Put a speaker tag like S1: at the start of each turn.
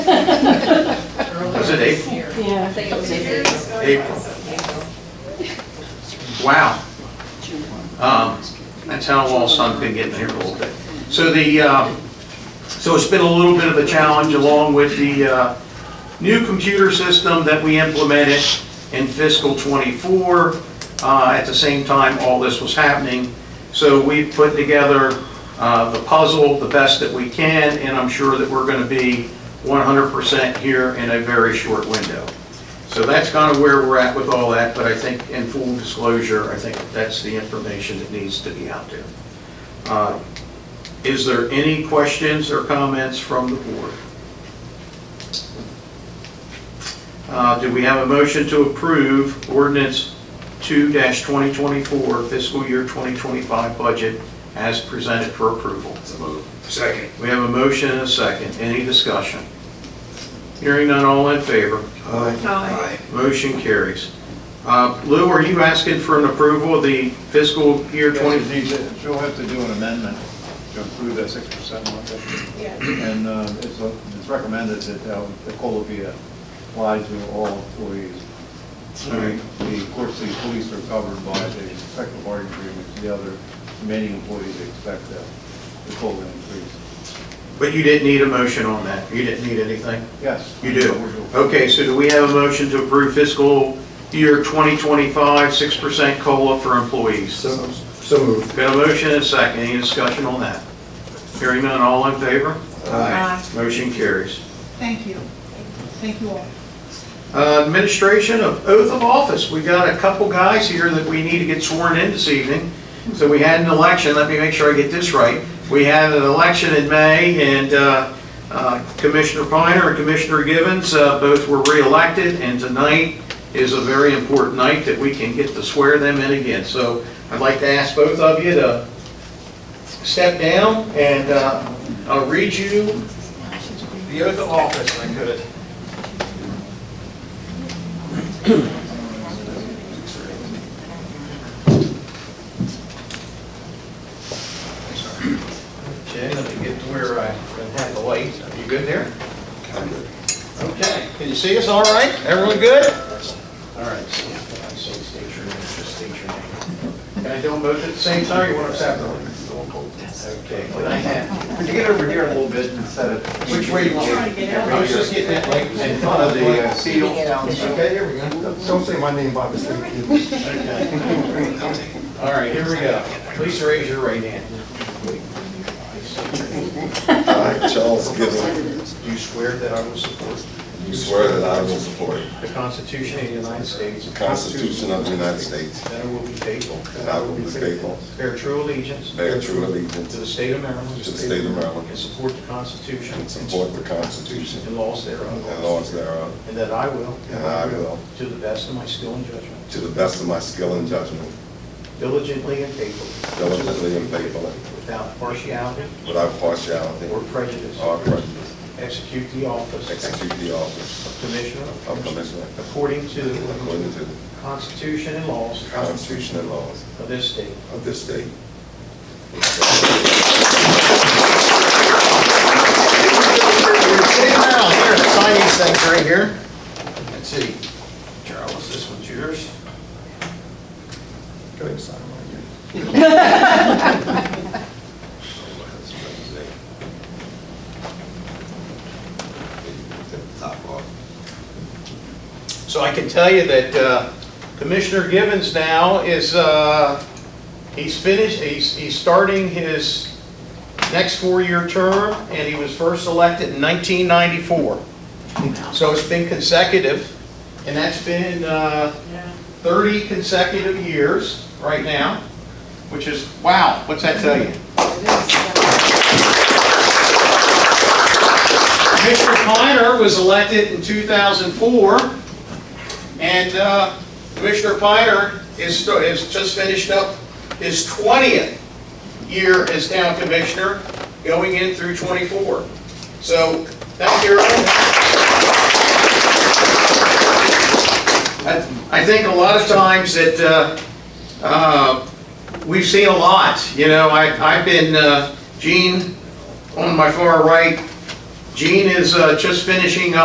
S1: it April?
S2: Yeah.
S3: think it was in there.
S1: April. Wow. Um, That's how well sun's been getting here all day. So the, um, so it's been a little bit of a challenge along with the uh, new computer system that we implemented in fiscal '24. At the same time, all this was happening. So we put together uh, the puzzle the best that we can, and I'm sure that we're going to be 100% here in a very short window. So that's kind of where we're at with all that, but I think in full disclosure, I think that's the information that needs to be out there. Uh, Is there any questions or comments from the board? Uh, Do we have a motion to approve ordinance 2-2024 fiscal year 2025 budget as presented for approval?
S4: Second.
S1: We have a motion and a second. Any discussion? Hearing none, all in favor?
S4: Aye.
S1: Motion carries. Uh, Lou, are you asking for an approval of the fiscal year 20?
S5: She'll have to do an amendment to approve that six percent one. And uh, it's uh, it's recommended that uh, the COLA be applied to all employees.
S1: Alright.
S5: The court city police are covered by the collective bargaining agreement, the other remaining employees expect that the COLA increase.
S1: But you didn't need a motion on that. You didn't need anything?
S5: Yes.
S1: You do. Okay, so do we have a motion to approve fiscal year 2025, 6% COLA for employees?
S6: So so moved.
S1: Got a motion and a second. Any discussion on that? Hearing none, all in favor?
S6: Aye.
S1: Motion carries.
S7: Uh, Thank you. Thank you all.
S1: Uh, Administration of oath of office. We got a couple guys here that we need to get sworn in this evening. So we had an election, let me make sure I get this right. We had an election in May, and uh, uh, Commissioner Piner and Commissioner Givens, uh, both were reelected, and tonight is a very important night that we can get to swear them in again. So I'd like to ask both of you to step down, and uh, I'll read you the oath of office, if I could. Okay, let me get to where I can have the light. Are you good there? Okay, can you see us all right? Everyone good? All right. so I say state your name, just state your name. Can I do them both at the same time, or you want them separately? Okay, can I have,
S5: Could you get over here a little bit and set it?
S1: which way do you want? I was just getting that light in front of the uh, seal. Okay, here we go.
S6: Don't say my name by mistake.
S1: All right, here we go. Please raise your right hand.
S8: I, Charles Gibbon,
S1: Do you swear that I will support
S8: do swear that I will support
S1: the Constitution of the United States,
S8: the Constitution of the United States,
S1: that I will be faithful,
S8: and I will be faithful,
S1: bear true allegiance
S8: bear true
S1: To
S8: allegiance
S1: the state of Maryland.
S8: to the state of
S1: And
S8: Maryland,
S1: support the Constitution.
S8: and support the Constitution
S1: And laws thereof.
S8: and laws thereof,
S1: And that I will.
S8: and I will,
S1: To the best of my skill and judgment.
S8: to the best of my skill and judgment,
S1: Diligently and faithfully.
S8: diligently and faithfully,
S1: Without partiality
S8: without partiality
S1: or prejudice.
S8: or prejudice,
S1: Execute the office
S8: execute the office
S1: of Commissioner.
S8: of Commissioner
S1: According to the
S8: according to the
S1: Constitution and laws
S8: Constitution and laws
S1: of this state.
S8: of this state.
S1: Sitting around here, sign these things right here. Let's see. Charles, this one's yours.
S8: Go ahead and sign mine. Take the Top off.
S1: So I can tell you that uh, Commissioner Givens now is, uh, he's finished, he's, he's starting his next four-year term, and he was first elected in 1994. So it's been consecutive, and that's been uh, 30 consecutive years right now, which is, wow, what's that tell you? Commissioner Piner was elected in 2004. And uh, Commissioner Piner is, sto- is just finished up his 20th year as town commissioner, going in through 24. So, thank you. I- I think a lot of times that, uh, uh, we've seen a lot, you know, I, I've been, uh, Gene, on my far right, Gene is uh, just finishing up.